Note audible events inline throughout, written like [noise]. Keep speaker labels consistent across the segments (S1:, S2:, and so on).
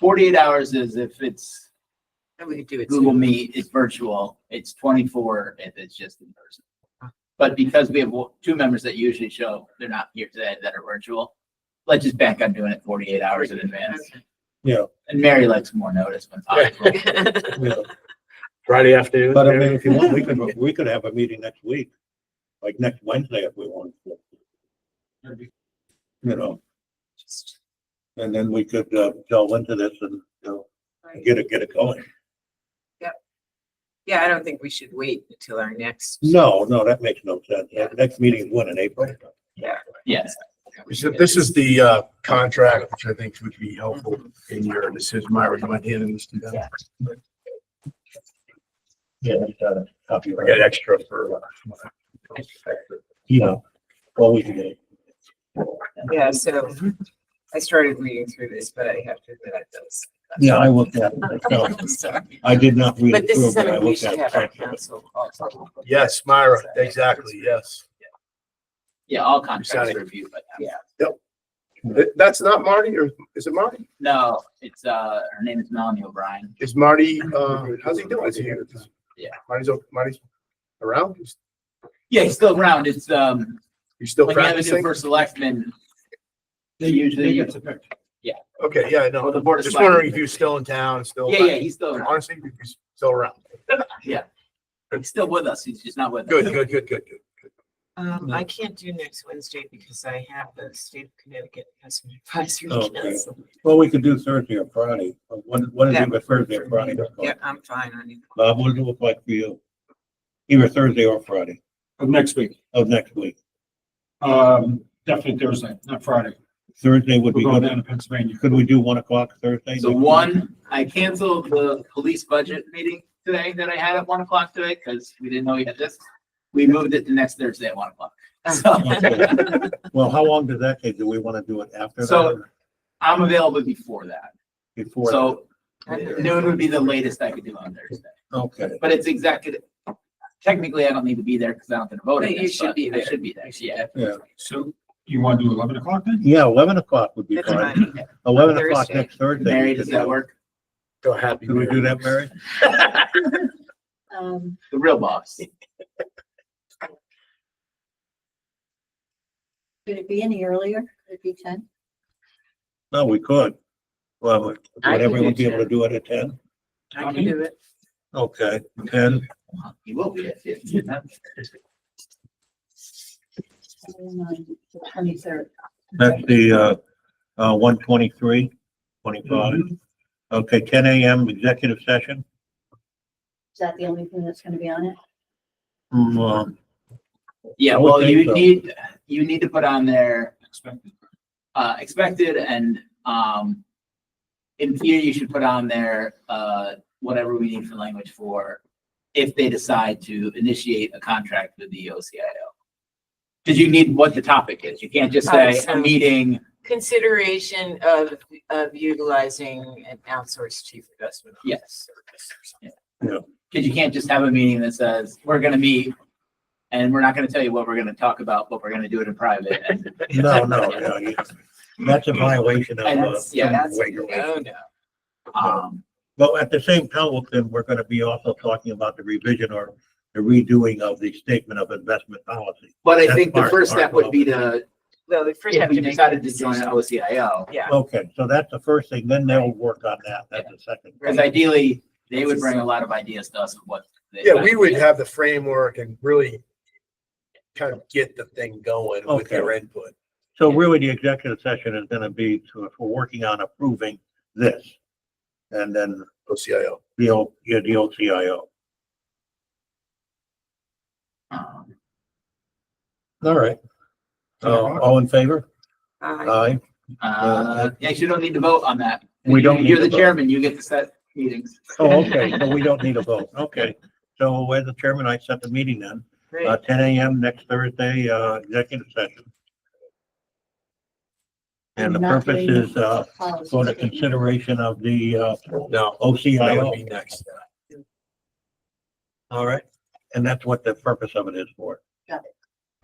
S1: Forty-eight hours is if it's
S2: And we could do it
S1: Google
S2: soon.
S1: Meet, it's virtual, it's twenty-four if it's just in person.
S3: Ah.
S1: But because we have wo- two members that usually show, they're not here today that are virtual, let's just bank on doing it forty-eight hours in advance.
S4: Yeah,
S1: And Mary likes more notice
S3: [laughs]
S1: when possible.
S2: [laughs]
S4: yeah.
S3: Friday afternoon.
S4: But I mean, if you want, we could, we could have a meeting next week, like next Wednesday if we want. to. You know, and then we could, uh, delve into this and, you know, get it, get it going.
S2: Yeah, I don't think we should wait until our next.
S4: No, no, that makes no sense. That Next meeting is when in April?
S1: Yes,
S3: So This is the uh, contract, which I think would be helpful in your decision. Myra, do you mind handing this to them?
S4: Yeah. Copy.
S3: I got extra for.
S4: Yeah. Well, we can, get-
S2: Yeah, so I started reading through this, but I have to admit I those.
S4: yeah, I looked at it myself.
S2: Sorry.
S4: I did not read
S2: But
S4: it
S2: this
S4: through,
S2: is
S4: but I
S2: something we
S4: looked
S2: should
S4: at
S2: have our
S4: it.
S2: council. also-
S3: Yes, Myra, exactly, yes.
S1: yeah, all contracts
S3: Exciting.
S1: are reviewed, but
S3: Th- That's not Marty, or is it Marty?
S1: no, it's, uh, her name is Melanie O'Brien.
S3: Is Marty, uh, how's he doing? Is he?
S1: Yeah.
S3: Marty's, o- Marty's around? He's-
S1: Yeah, he's still around. It's, um,
S3: He's still
S1: when you have a new
S3: practicing?
S1: first selectman, they usually,
S3: Okay, yeah, no,
S1: Well, Oh, the board is
S3: just wondering
S1: fine.
S3: if you're still in town, still.
S1: yeah, yeah, he's still around.
S3: Honestly, he's still around.
S1: He's still with us. He's just not with us.
S3: Good, good, good, good, good.
S2: Um, I can't do next Wednesday because I have the state of Connecticut Customer Advisory
S4: Oh, Okay.
S2: Council.
S4: Well, we could do Thursday or Friday. When, when is
S2: Yeah.
S4: it, but Thursday or Friday?
S2: Yeah, I'm fine on it.
S4: Bob, Uh, what does it look like for you? Either Thursday or Friday
S5: of next week.
S4: of next week.
S5: Um, definitely Thursday, not Friday.
S4: Thursday would
S5: We're
S4: be
S5: going down
S4: good.
S5: to Pennsylvania.
S4: Could we do one o'clock Thursday?
S1: So one, I canceled the police budget meeting today that I had at one o'clock today because we didn't know we had this. We moved it to next Thursday at one o'clock.
S2: Oh.
S5: [laughs]
S1: So
S4: Okay. Well, how long does that take? Do we want to do it after that?
S1: So-
S4: or
S1: I'm available before that.
S4: Before?
S1: So uh,
S2: I don't know.
S1: noon would be the latest I could do on Thursday.
S4: that? Okay,
S1: But it's executive. Technically, I don't need to be there because I don't get to vote.
S2: But
S1: on
S2: you
S1: this,
S2: should be
S1: I
S2: there.
S1: should be there, yeah.
S4: yeah.
S5: So you want to do eleven o'clock then?
S4: Yeah, eleven o'clock would be
S2: That's
S4: fine.
S2: fine.
S4: Eleven o'clock
S2: Thursday.
S4: next Thursday.
S1: Mary, does that work?
S3: Go happy.
S4: Could we do
S3: Mary.
S4: that, Mary?
S2: Um,
S1: The real boss.
S6: Could it be any earlier? Could it be ten?
S4: No, we could. Well, would
S2: I could
S4: everyone
S2: do
S4: be able to do it at ten?
S2: I can do it.
S4: Okay, ten.
S1: You will be at fifteen.
S6: Twenty-third.
S4: That's the, uh, uh, one twenty-three, twenty-five.
S5: Mm-hmm.
S4: Okay, ten AM executive session.
S6: Is that the only thing that's gonna be on it?
S4: Mm, um,
S1: Yeah,
S4: I would
S1: well,
S4: think
S1: you
S4: so.
S1: need, you need to put on there
S5: Expected.
S1: uh, expected and, um, in theory, you should put on there, uh, whatever we need for language for if they decide to initiate a contract with the OCIO. Cause you need what the topic is. You can't just
S2: Alright,
S1: say a
S2: so-
S1: meeting.
S2: Consideration of, of utilizing an outsourced chief investment. officer
S1: Yes.
S2: service or something.
S1: Cause you can't just have a meeting that says, we're gonna meet and we're not gonna tell you what we're gonna talk about, but we're gonna do it in
S4: [laughs]
S1: private. And
S4: [laughs] No, no, no, you- that's a violation of,
S1: And
S4: uh,
S1: that's- yeah,
S2: that's-
S4: regulation.
S2: Oh, no.
S1: Um,
S4: But at the same time, then we're gonna be also talking about the revision or the redoing of the statement of investment policy.
S1: but I
S4: That's
S1: think the
S4: part-
S1: first step
S4: part
S1: would be to,
S2: Well, we first
S1: if
S2: have
S1: we
S2: to make.
S1: decided
S2: a
S1: to join
S2: decision.
S1: OCIO,
S2: Yeah.
S4: Okay, so that's the first thing, then they'll work on that, that's the second.
S1: Because
S2: Right.
S1: ideally, they would bring a lot of ideas to us of what. they-
S3: Yeah, we would have the framework and really kind of get the thing going with
S4: Okay.
S3: their input.
S4: So really, the executive session is gonna be to, for working on approving this. And then
S3: OCIO.
S4: the O, yeah, the OCIO.
S1: Um,
S4: All right. Uh, all in favor?
S2: Uh,
S4: Aye.
S1: Uh, yeah, you don't need to vote on that.
S4: We don't
S1: You're the
S4: need to vote.
S1: chairman, you get to set meetings.
S6: [laughs]
S4: Oh, okay, so we don't need a vote, okay. So as the chairman, I set the meeting then.
S2: great.
S4: uh, ten AM next Thursday, uh, executive session. And the
S6: Not
S4: purpose
S6: doing-
S4: is, uh,
S6: Policy
S4: for the
S6: statement.
S4: consideration of the, uh,
S3: No, that would be
S4: OCIO.
S3: next.
S4: All right. And that's what the purpose of it is for.
S6: Got it.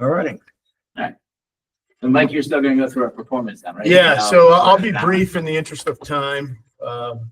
S4: All righty.
S1: And Mike, you're still gonna go through our performance then, right?
S3: Yeah,
S1: Um,
S3: [laughs] so I'll I'll be brief in the interest of time. Um,